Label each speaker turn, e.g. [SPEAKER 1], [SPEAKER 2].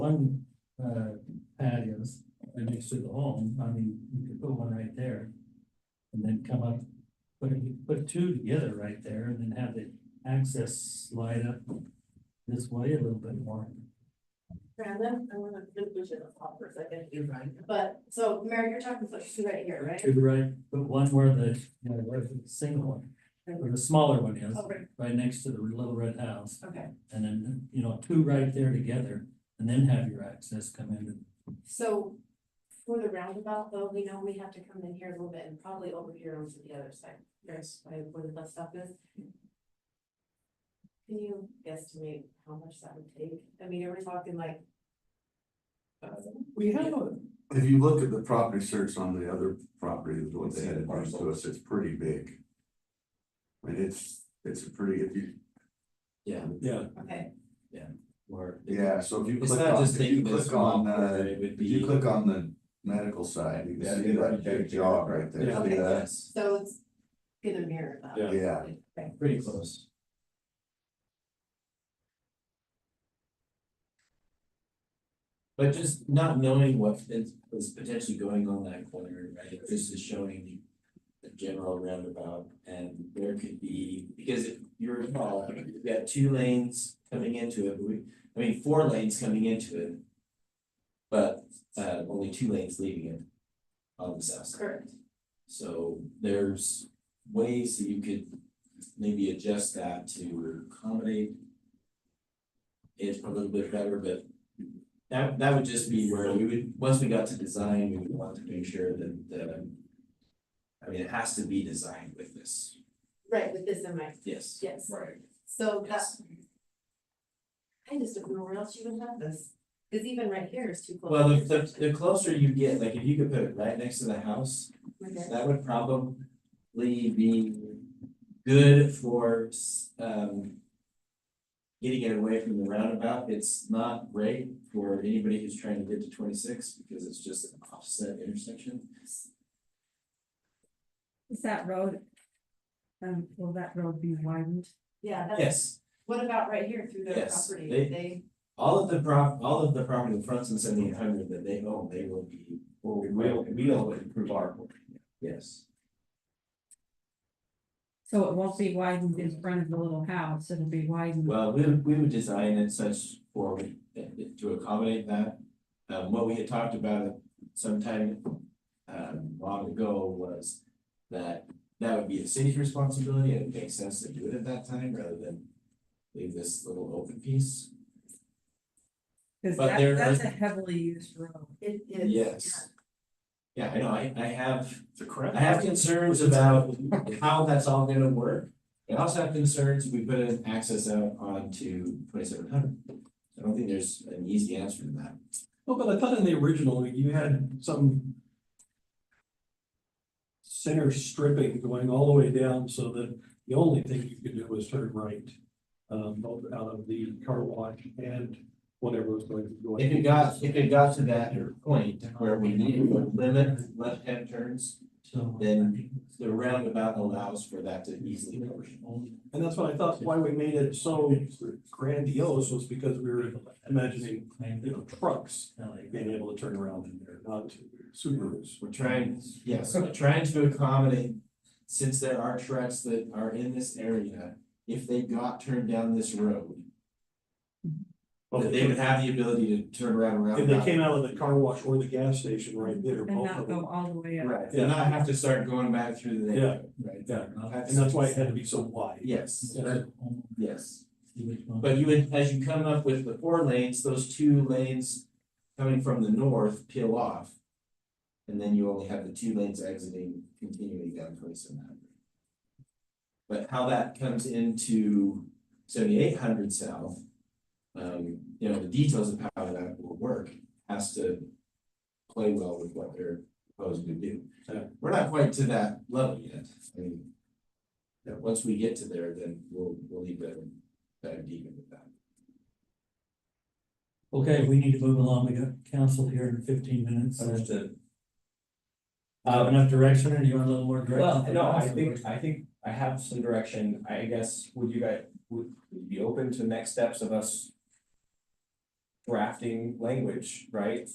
[SPEAKER 1] one, uh, patios right next to the home, I mean, you could put one right there. And then come up, put, put two together right there and then have the access slide up this way a little bit more.
[SPEAKER 2] Brandon, I wanna, we should talk for a second,
[SPEAKER 3] You're right.
[SPEAKER 2] but, so Mary, you're talking about two right here, right?
[SPEAKER 1] To the right, but one where the, you know, where the single one, where the smaller one is,
[SPEAKER 2] Oh, right,
[SPEAKER 1] right next to the little red house.
[SPEAKER 2] okay,
[SPEAKER 1] And then, you know, two right there together, and then have your access come in.
[SPEAKER 2] so for the roundabout though, we know we have to come in here a little bit and probably over here onto the other side. Yes. Where where the bus stop is. Can you guesstimate how much that would take? I mean, are we talking like?
[SPEAKER 3] We have a,
[SPEAKER 4] If you look at the property search on the other property, what they had advised to us, it's pretty big. I mean, it's, it's a pretty, if you,
[SPEAKER 5] Yeah,
[SPEAKER 1] Yeah.
[SPEAKER 2] Okay,
[SPEAKER 5] or.
[SPEAKER 4] yeah, so if you
[SPEAKER 5] It's
[SPEAKER 4] click
[SPEAKER 5] not
[SPEAKER 4] on,
[SPEAKER 5] just
[SPEAKER 4] if you
[SPEAKER 5] taking this
[SPEAKER 4] click
[SPEAKER 5] small
[SPEAKER 4] on,
[SPEAKER 5] part,
[SPEAKER 4] uh,
[SPEAKER 5] it would
[SPEAKER 4] if you
[SPEAKER 5] be.
[SPEAKER 4] click on the medical side, you
[SPEAKER 5] Yeah,
[SPEAKER 4] can see
[SPEAKER 5] it'd be
[SPEAKER 4] that
[SPEAKER 5] right there.
[SPEAKER 4] big jog right there.
[SPEAKER 2] Yeah.
[SPEAKER 4] See that?
[SPEAKER 5] Yes,
[SPEAKER 2] so it's gonna mirror that.
[SPEAKER 5] Yeah.
[SPEAKER 4] Yeah,
[SPEAKER 2] Okay.
[SPEAKER 5] pretty close. But just not knowing what is is potentially going on that corner, right, this is showing the. The general roundabout and there could be, because if you recall, you've got two lanes coming into it, we, I mean, four lanes coming into it. But uh only two lanes leaving it. On the south side.
[SPEAKER 2] Correct,
[SPEAKER 5] So there's ways that you could maybe adjust that to accommodate. It a little bit better, but that that would just be where we would, once we got to design, we would want to make sure that the. I mean, it has to be designed with this,
[SPEAKER 2] right, with this in mind,
[SPEAKER 5] yes.
[SPEAKER 2] yes.
[SPEAKER 5] Right.
[SPEAKER 2] So that,
[SPEAKER 5] Yes,
[SPEAKER 2] I just don't know where else you would have this, cause even right here is too close.
[SPEAKER 5] well, the the the closer you get, like if you could put it right next to the house,
[SPEAKER 2] Okay.
[SPEAKER 5] That would probably be good for um. Getting it away from the roundabout, it's not great for anybody who's trying to get to twenty six because it's just an offset intersection.
[SPEAKER 6] Is that road? Um, will that road be widened?
[SPEAKER 2] Yeah, that's,
[SPEAKER 5] Yes,
[SPEAKER 2] what about right here through their
[SPEAKER 5] Yes,
[SPEAKER 2] property,
[SPEAKER 5] they-
[SPEAKER 2] they,
[SPEAKER 5] all of the prop, all of the property in front and seventy eight hundred that they own, they will be, or we will, we will improve our. Yes,
[SPEAKER 6] So it won't be widened in front of the little house, it'll be widened.
[SPEAKER 5] well, we would, we would design it such for, to accommodate that. Um, what we had talked about sometime um long ago was that that would be the city's responsibility and it makes sense to do it at that time rather than leave this little open piece.
[SPEAKER 6] Cause
[SPEAKER 5] but there
[SPEAKER 6] that, that's
[SPEAKER 5] are-
[SPEAKER 6] a heavily used road.
[SPEAKER 2] it is.
[SPEAKER 5] Yes. Yeah, I know, I I have,
[SPEAKER 3] it's a crap.
[SPEAKER 5] I have concerns about how that's all gonna work. I also have concerns, we put an access out onto twenty seven hundred. I don't think there's an easy answer to that.
[SPEAKER 3] Well, but I thought in the original, you had some. Center stripping going all the way down so that the only thing you could do was turn right. Um, both out of the car wash and whatever was going to go.
[SPEAKER 5] If it got, if it got to that point where we needed to limit left hand turns,
[SPEAKER 1] So.
[SPEAKER 5] Then the roundabout allows for that to easily cover.
[SPEAKER 3] And that's what I thought, why we made it so grandiose was because we were imagining, you know, trucks being able to turn around in there, not Subarus.
[SPEAKER 5] We're trying, yes, we're trying to accommodate, since there are trucks that are in this area, if they got turned down this road, that they would have the ability to turn around around.
[SPEAKER 3] If they came out of the car wash or the gas station right there,
[SPEAKER 6] And
[SPEAKER 3] both
[SPEAKER 6] not
[SPEAKER 3] of
[SPEAKER 6] go
[SPEAKER 3] them.
[SPEAKER 6] all the way up.
[SPEAKER 5] Right, and not have to start going back through the neighborhood, right?
[SPEAKER 3] Yeah, and that's why it had to be so wide.
[SPEAKER 5] Yes, yes.
[SPEAKER 1] See which one.
[SPEAKER 5] But you would, as you come up with the four lanes, those two lanes coming from the north peel off. And then you only have the two lanes exiting continuing down twenty seven hundred. But how that comes into seventy eight hundred south. Um, you know, the details of how that will work has to play well with what they're proposing to do.
[SPEAKER 3] Yeah.
[SPEAKER 5] We're not quite to that level yet, I mean. yeah, once we get to there, then we'll, we'll leave that dive deep into that.
[SPEAKER 1] Okay, we need to move along. We got council here in fifteen minutes.
[SPEAKER 7] Understood.
[SPEAKER 1] Have enough direction or do you want a little more direction?
[SPEAKER 7] Well,
[SPEAKER 1] from
[SPEAKER 7] no, I
[SPEAKER 1] council?
[SPEAKER 7] think, I think I have some direction, I guess, would you guys, would you be open to next steps of us?
[SPEAKER 5] drafting language, right?